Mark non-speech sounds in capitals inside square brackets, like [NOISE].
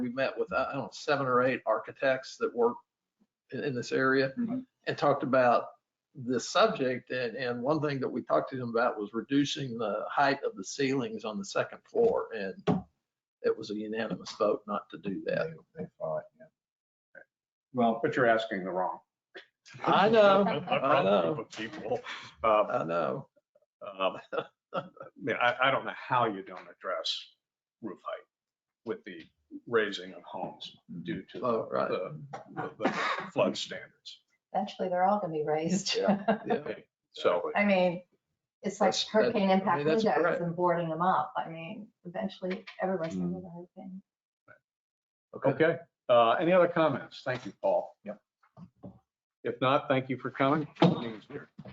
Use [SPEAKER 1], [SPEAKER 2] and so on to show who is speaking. [SPEAKER 1] we met with, I don't know, seven or eight architects that work in, in this area
[SPEAKER 2] Mm-hmm.
[SPEAKER 3] Mhm.
[SPEAKER 1] and talked about this subject. And, and one thing that we talked to them about was reducing the height of the ceilings on the second floor. And it was a unanimous vote not to do that.
[SPEAKER 2] They thought, yeah.
[SPEAKER 3] Well, but you're asking the wrong.
[SPEAKER 1] I
[SPEAKER 3] [LAUGHS]
[SPEAKER 1] know,
[SPEAKER 4] A- a
[SPEAKER 1] I
[SPEAKER 4] broad
[SPEAKER 1] know,
[SPEAKER 4] group of People, Uh,
[SPEAKER 1] I know.
[SPEAKER 3] [LAUGHS]
[SPEAKER 4] um,
[SPEAKER 3] I mean, I, I don't know how you don't address roof height with the raising of homes due to
[SPEAKER 1] Oh, right.
[SPEAKER 3] the, the- the flood standards.
[SPEAKER 5] Eventually, they're all gonna be raised. [LAUGHS]
[SPEAKER 1] Yeah.
[SPEAKER 3] So
[SPEAKER 5] I mean, it's like
[SPEAKER 1] That's- that-
[SPEAKER 5] hurricane
[SPEAKER 1] I
[SPEAKER 5] impact
[SPEAKER 1] mean, that's
[SPEAKER 5] windows
[SPEAKER 1] correct. Mm.
[SPEAKER 5] and boarding them up. I mean, eventually, everyone's gonna have a hurricane.
[SPEAKER 3] Okay, uh, any other comments? Thank you, Paul. Yep. If not, thank you for coming. Meeting's adjourned.